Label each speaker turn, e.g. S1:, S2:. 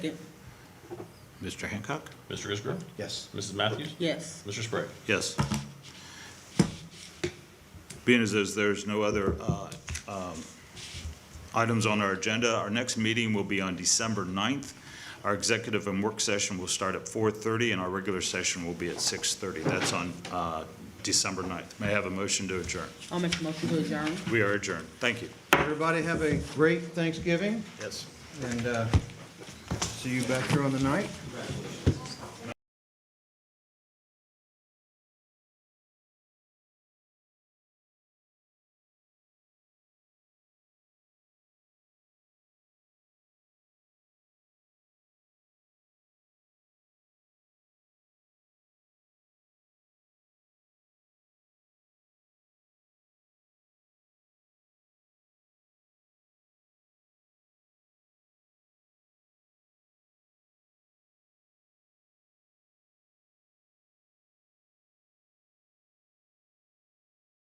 S1: Mr. Hancock?
S2: Mr. Isgro?
S3: Yes.
S2: Mrs. Matthews?
S4: Yes.
S2: Mr. Sprague?
S1: Yes. Being as there's- there's no other uh, um, items on our agenda, our next meeting will be on December 9th. Our executive and work session will start at 4:30, and our regular session will be at 6:30. That's on uh, December 9th. May I have a motion to adjourn?
S4: I'll make a motion to adjourn.
S1: We are adjourned. Thank you.
S3: Everybody have a great Thanksgiving,
S1: Yes.
S3: and uh, see you back here on the night.